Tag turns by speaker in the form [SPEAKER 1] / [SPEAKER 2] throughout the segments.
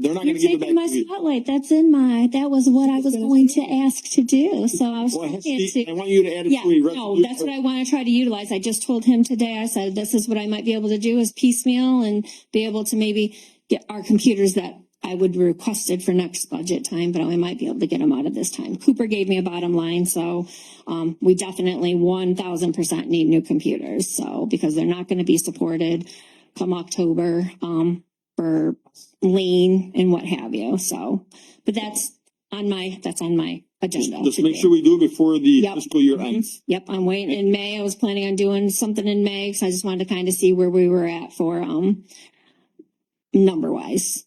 [SPEAKER 1] They're not
[SPEAKER 2] You're
[SPEAKER 1] gonna give it
[SPEAKER 2] taking my
[SPEAKER 1] back to you.
[SPEAKER 2] spotlight. That's in my, that was what I was going to ask to do, so I was
[SPEAKER 1] Well,
[SPEAKER 2] trying
[SPEAKER 1] Steve, I
[SPEAKER 2] to.
[SPEAKER 1] want you to add it
[SPEAKER 2] Yeah,
[SPEAKER 1] to the rest of
[SPEAKER 2] no,
[SPEAKER 1] your-
[SPEAKER 2] that's what I wanna try to utilize. I just told him today, I said, this is what I might be able to do is piecemeal and be able to maybe get our computers that I would requested for next budget time, but I might be able to get them out of this time. Cooper gave me a bottom line, so, um, we definitely one thousand percent need new computers, so, because they're not gonna be supported come October, um, for lane and what have you, so, but that's on my, that's on my agenda.
[SPEAKER 1] Just make
[SPEAKER 2] today.
[SPEAKER 1] sure we do it before the
[SPEAKER 2] Yep.
[SPEAKER 1] fiscal year
[SPEAKER 2] Mhm.
[SPEAKER 1] ends.
[SPEAKER 2] Yep, I'm waiting in May. I was planning on doing something in May, so I just wanted to kind of see where we were at for, um, number wise.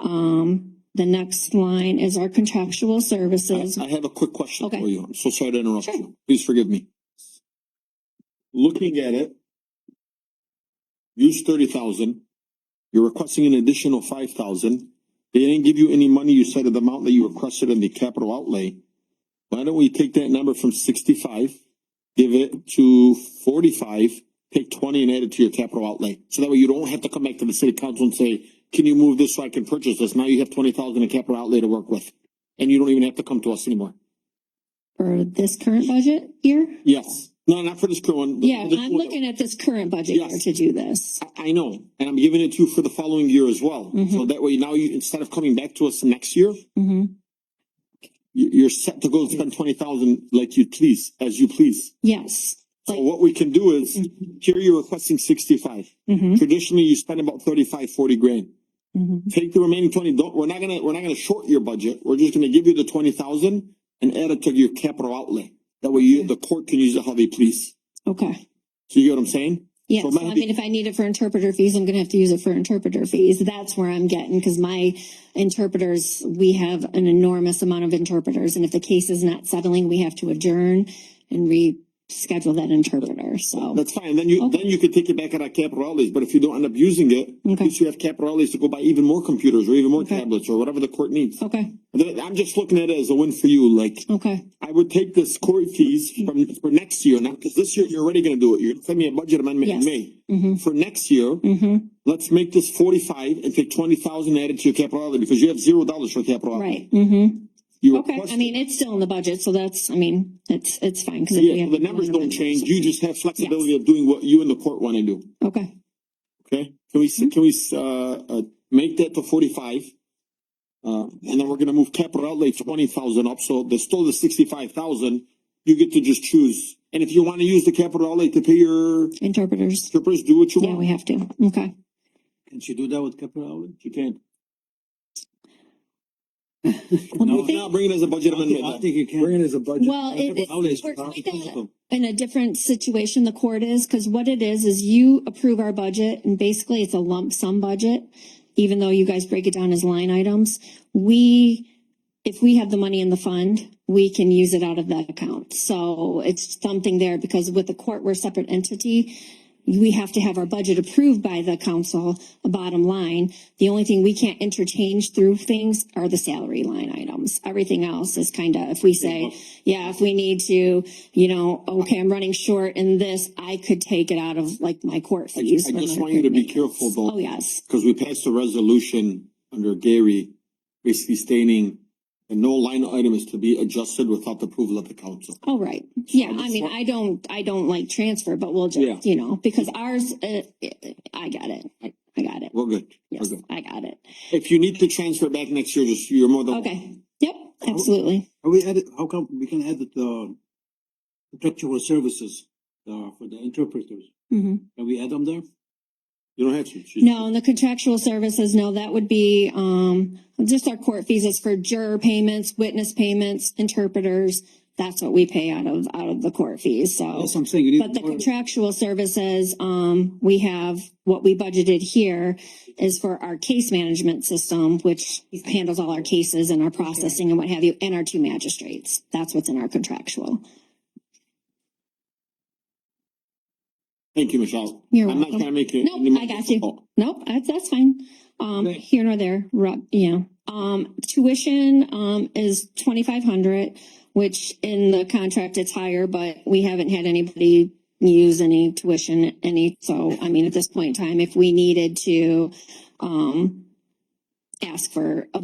[SPEAKER 2] Um, the next line is our contractual services.
[SPEAKER 1] I I have a quick question
[SPEAKER 2] Okay.
[SPEAKER 1] for you. I'm so sorry to interrupt
[SPEAKER 2] Sure.
[SPEAKER 1] you. Please forgive me. Looking at it. Use thirty thousand. You're requesting an additional five thousand. They didn't give you any money. You said of the amount that you requested in the capital outlay. Why don't we take that number from sixty-five, give it to forty-five, take twenty and add it to your capital outlay? So that way you don't have to come back to the city council and say, can you move this so I can purchase this? Now you have twenty thousand in capital outlay to work with. And you don't even have to come to us anymore.
[SPEAKER 2] For this current budget year?
[SPEAKER 1] Yes. No, not for this current one.
[SPEAKER 2] Yeah, I'm looking at this current budget year
[SPEAKER 1] Yes.
[SPEAKER 2] to do this.
[SPEAKER 1] I, I know, and I'm giving it to you for the following year as well. So
[SPEAKER 2] Mhm.
[SPEAKER 1] that way now you, instead of coming back to us next year,
[SPEAKER 2] hmm
[SPEAKER 1] you, you're set to go spend twenty thousand like you please, as you please.
[SPEAKER 2] Yes.
[SPEAKER 1] So what we can do is,
[SPEAKER 2] Mm-hmm.
[SPEAKER 1] here you're requesting sixty-five.
[SPEAKER 2] hmm
[SPEAKER 1] Traditionally, you spend about thirty-five, forty grand.
[SPEAKER 2] hmm
[SPEAKER 1] Take the remaining twenty, don't, we're not gonna, we're not gonna short your budget. We're just gonna give you the twenty thousand and add it to your capital outlay. That way you, the court can use it how they please.
[SPEAKER 2] Okay.
[SPEAKER 1] So you get what I'm saying?
[SPEAKER 2] Yeah,
[SPEAKER 1] So it
[SPEAKER 2] so
[SPEAKER 1] might
[SPEAKER 2] I
[SPEAKER 1] be-
[SPEAKER 2] mean, if I need it for interpreter fees, I'm gonna have to use it for interpreter fees. That's where I'm getting, cause my interpreters, we have an enormous amount of interpreters. And if the case is not settling, we have to adjourn and reschedule that interpreter, so.
[SPEAKER 1] That's fine, then you,
[SPEAKER 2] Okay.
[SPEAKER 1] then you could take it back at our capital outlays, but if you don't end up using it, at
[SPEAKER 2] Okay.
[SPEAKER 1] least you have capital outlays to go buy even more computers or even more
[SPEAKER 2] Okay.
[SPEAKER 1] tablets or whatever the court needs.
[SPEAKER 2] Okay,
[SPEAKER 1] Th- I'm just looking at it as a win for you, like,
[SPEAKER 2] okay,
[SPEAKER 1] I would take this court fees
[SPEAKER 2] Mm-hmm.
[SPEAKER 1] from, for next year, not, cause this year you're already gonna do it, you're sending me a budget amendment in
[SPEAKER 2] Yes.
[SPEAKER 1] May.
[SPEAKER 2] hmm
[SPEAKER 1] For next year,
[SPEAKER 2] hmm
[SPEAKER 1] let's make this forty-five and take twenty thousand added to your capital outlay, because you have zero dollars for capital outlay.
[SPEAKER 2] right, hmm
[SPEAKER 1] You
[SPEAKER 2] Okay, I
[SPEAKER 1] requested-
[SPEAKER 2] mean, it's still in the budget, so that's, I mean, it's, it's fine, cause. if we
[SPEAKER 1] Yeah,
[SPEAKER 2] have
[SPEAKER 1] the
[SPEAKER 2] to go
[SPEAKER 1] numbers
[SPEAKER 2] into
[SPEAKER 1] don't
[SPEAKER 2] budget,
[SPEAKER 1] change,
[SPEAKER 2] so-
[SPEAKER 1] you just have flexibility of doing what you and the court wanna do.
[SPEAKER 2] Okay,
[SPEAKER 1] Okay, can we, s-
[SPEAKER 2] Mm-hmm.
[SPEAKER 1] can we, s- uh, uh, make that to forty-five? Uh, and then we're gonna move capital outlay twenty thousand up, so there's still the sixty-five thousand. You get to just choose, and if you wanna use the capital outlay to pay your
[SPEAKER 2] interpreters,
[SPEAKER 1] strippers, do what you
[SPEAKER 2] yeah, we
[SPEAKER 1] want.
[SPEAKER 2] have to, okay.
[SPEAKER 3] Can she do that with capital outlay?
[SPEAKER 1] You can.
[SPEAKER 2] No,
[SPEAKER 1] No, not bring it as a budget
[SPEAKER 3] I
[SPEAKER 1] amendment.
[SPEAKER 3] think you can.
[SPEAKER 4] Bring it as a budget.
[SPEAKER 2] Well, it, it,
[SPEAKER 3] Capital outlay is
[SPEAKER 2] we're
[SPEAKER 3] not-
[SPEAKER 2] kinda- in a different situation the court is, because what it is, is you approve our budget and basically it's a lump sum budget. Even though you guys break it down as line items, we, if we have the money in the fund, we can use it out of that account. So it's something there because with the court, we're a separate entity. We have to have our budget approved by the council, bottom line. The only thing we can't interchange through things are the salary line items. Everything else is kind of, if we say, yeah, if we need to, you know, okay, I'm running short in this, I could take it out of like my court
[SPEAKER 1] I
[SPEAKER 2] fees.
[SPEAKER 1] I
[SPEAKER 2] for
[SPEAKER 1] just
[SPEAKER 2] my
[SPEAKER 1] want you to be
[SPEAKER 2] maintenance.
[SPEAKER 1] careful though.
[SPEAKER 2] Oh, yes.
[SPEAKER 1] Cause we passed a resolution under Gary, basically stating that no line item is to be adjusted without the approval of the council.
[SPEAKER 2] All Oh, right. Yeah,
[SPEAKER 1] I
[SPEAKER 2] I
[SPEAKER 1] just
[SPEAKER 2] mean,
[SPEAKER 1] want-
[SPEAKER 2] I don't, I don't like transfer, but we'll
[SPEAKER 1] Yeah.
[SPEAKER 2] just, you know, because ours, uh, I got it. I I got it.
[SPEAKER 1] We're good. We're
[SPEAKER 2] Yes,
[SPEAKER 1] good.
[SPEAKER 2] I got it.
[SPEAKER 1] If you need to transfer back next year, just you're more than.
[SPEAKER 2] Okay. Yep, absolutely.
[SPEAKER 3] Are we added, how come we can add the, the contractual services, uh, for the interpreters?
[SPEAKER 2] hmm
[SPEAKER 3] Can we add them there?
[SPEAKER 1] You don't have to. She's-
[SPEAKER 2] No, and the contractual services, no, that would be, um, just our court fees is for juror payments, witness payments, interpreters. That's what we pay out of, out of the court fees, so.
[SPEAKER 3] That's what I'm saying, you need.
[SPEAKER 2] But the
[SPEAKER 3] more-
[SPEAKER 2] contractual services, um, we have, what we budgeted here is for our case management system, which handles all our cases and our processing and what have you, and our two magistrates. That's what's in our contractual.
[SPEAKER 1] Thank you, Michelle.
[SPEAKER 2] You're
[SPEAKER 1] I'm not
[SPEAKER 2] welcome.
[SPEAKER 1] trying to make it.
[SPEAKER 2] Nope,
[SPEAKER 1] any more
[SPEAKER 2] I got you.
[SPEAKER 1] difficult.
[SPEAKER 2] Nope, that's, that's fine. Um,
[SPEAKER 3] Okay.
[SPEAKER 2] here nor there, Rob, yeah. Um, tuition, um, is twenty-five hundred, which in the contract it's higher, but we haven't had anybody use any tuition, any, so, I mean, at this point in time, if we needed to, um, ask for a